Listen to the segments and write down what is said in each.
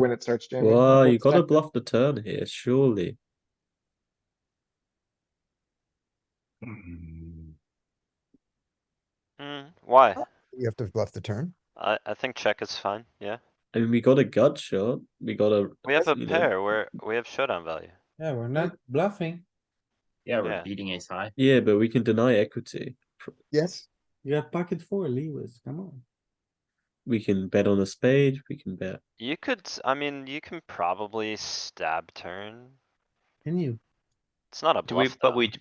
when it starts jamming. Well, One you gotta second. bluff the turn here, surely. Mm-hmm. Hmm, why? Oh. You have to bluff the turn. I, I think check is fine, yeah. I mean, we got a gut shot, we got a. We have a you know, pair where we have showdown value. Yeah, we're not bluffing. Yeah, we're Yeah. beating ace high. Yeah, but we can deny equity. Yes, You have pocket four, Lewis, come on. We can bet on a spade, we can bet. You could, s- I mean, you can probably stab turn. Can you? It's not a Do we, bluff but though. we, d-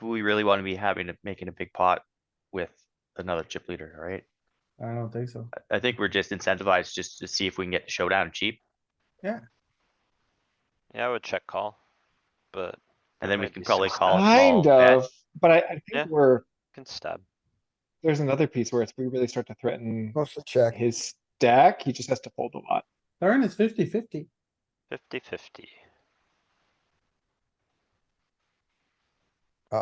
do we really wanna be having, a- making a big pot with another chip leader, right? I don't think so. I- I think we're just incentivized just to see if we can get the showdown cheap, Yeah, I would check call. But you and then we might can be probably still call a small Kind bet. of, but I, I Oh, Yeah. think we're, can stab. there's another piece where it's, we really start to threaten mostly check. his stack. He just has to fold a lot. Turn is fifty fifty. Fifty fifty. Do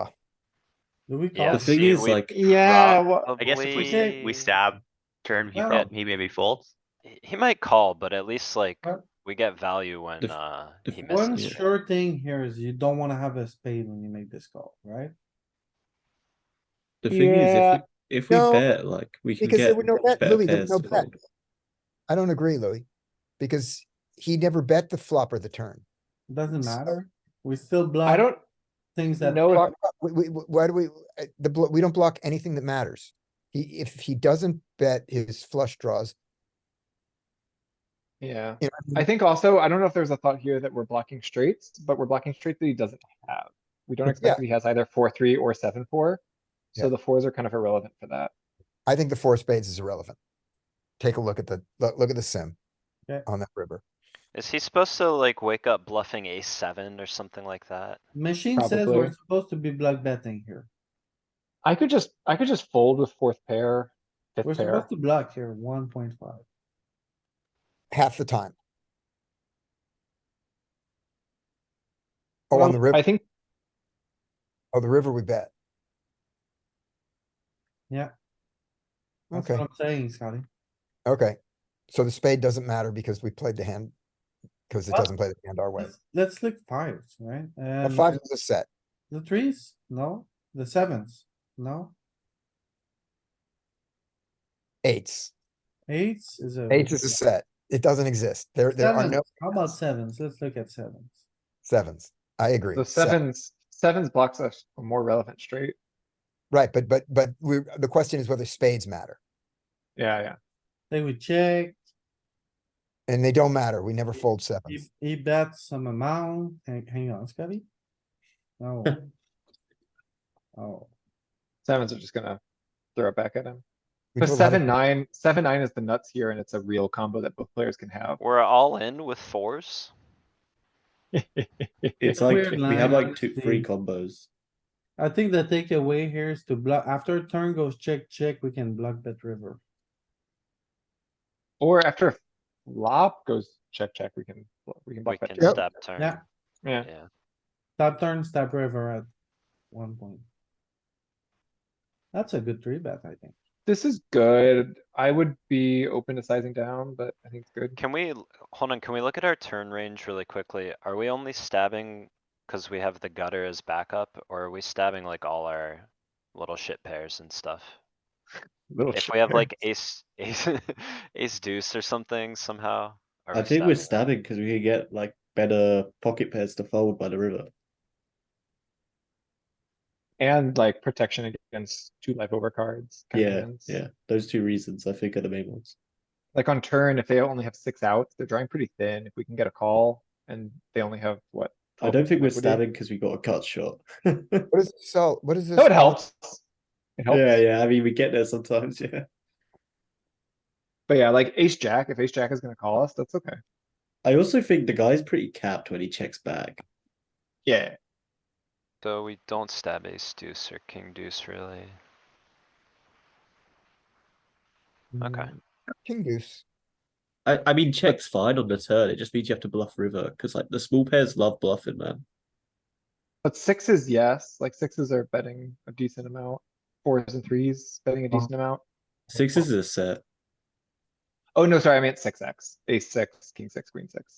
we Yeah, call? The thing see, is, we- like, Yeah, Rob, well, I guess if we, say s- we stab, turn, he Well- prob, he maybe folds. He- He might call, but at least like, Well, we get value when, if- uh, if he One misses. sure thing here is you don't wanna have a spade when you make this call, right? the thing Yeah. is, if we, if No, we bet, like, we can because there get were no bet- better Louis, there were pairs no to bet. fold. I don't agree, Louis, because he never bet the flop or the turn. Doesn't So- matter. We still I block don't things that. know. if- uh, We, we, we- why do we, uh, the, blo- we don't block anything that matters. He, if he doesn't bet his flush draws. Yeah, you know, I think also, I don't know if there's a thought here that we're blocking straights, but we're blocking straight that he doesn't have. We don't expect that he has either four, three or seven, four. So Yeah. the fours are kind of irrelevant for that. I think the four of spades is irrelevant. Take a look at the, look, look at the sim. Yeah. On that river. Is he supposed to like wake up bluffing ace seven or something like that? Machine says we're Probably. supposed to be block betting here. I could just, I could just fold with fourth pair, We're fifth pair. supposed to block here, one point five. half the time. Oh, on the I river, think oh, the river we bet. Yeah. That's Okay, what I'm saying, Scotty. okay. So the spade doesn't matter because we played the hand, because it Well, doesn't play the hand our way. Let's, let's look fives, right? A And five is a set. the threes? No. The sevens? No. Eights. Eights is a. Eights is a set. It doesn't exist. There, there are no Sevens. How about sevens? Let's look at sevens. sevens. I agree. the Seven. sevens, sevens blocks us a more relevant straight. Right, but, but, but we, the question is whether spades matter. Yeah, yeah. They would check, And they don't matter. We never fold he, sevens. he bets some amount, hang, hang on, Scotty? No. Oh, Sevens are just gonna throw it back at him. We But do a lot of- seven, nine, seven, nine is the nuts here and it's a real combo that both players can have. We're all in with fours? It's a like, weird if we line, have like two, honestly. three combos. I think the takeaway here is to block, after turn goes check, check, we can block that river. Or after flop goes check, check, we can, we can We block that. can too. stab turn. Yeah. Yeah. Stop turn, stop river at one point. That's a good three bet, I think. This is good. I would be open to sizing down, but I think it's good. Can we, l- hold on, can we look at our turn range really quickly? Are we only stabbing cuz we have the gutter as backup, or are we stabbing like all our little shit pairs and stuff? Little If shit we have there. like ace, ace, ace deuce or something somehow? are I we think we're stabbing, stabbing? cause we can get like better pocket pairs to fold by the river. And like protection against two life over cards. kind of Yeah, hands. yeah, those two reasons I think are the main ones. Like on turn, if they only have six outs, they're drawing pretty thin. If we can get a call and they only have what? Oh, I don't think we're What do you- stabbing because we got a cut shot. What is, so, what is this? No, it helps. It helps. Yeah, yeah, I mean, we get there sometimes, yeah. But yeah, like ace jack, if ace jack is gonna call us, that's okay. I also think the guy's pretty capped when he checks back. Yeah. So we don't stab ace deuce or king deuce really. Okay. King deuce. I, I mean, check's fine on the turn. It just means you have to bluff river because like the small pairs love bluffing, man. But sixes, yes, like sixes are betting a decent amount. Fours and threes betting a decent amount. Sixes is a set. Oh, no, sorry, I meant six X, ace six, king six, queen six.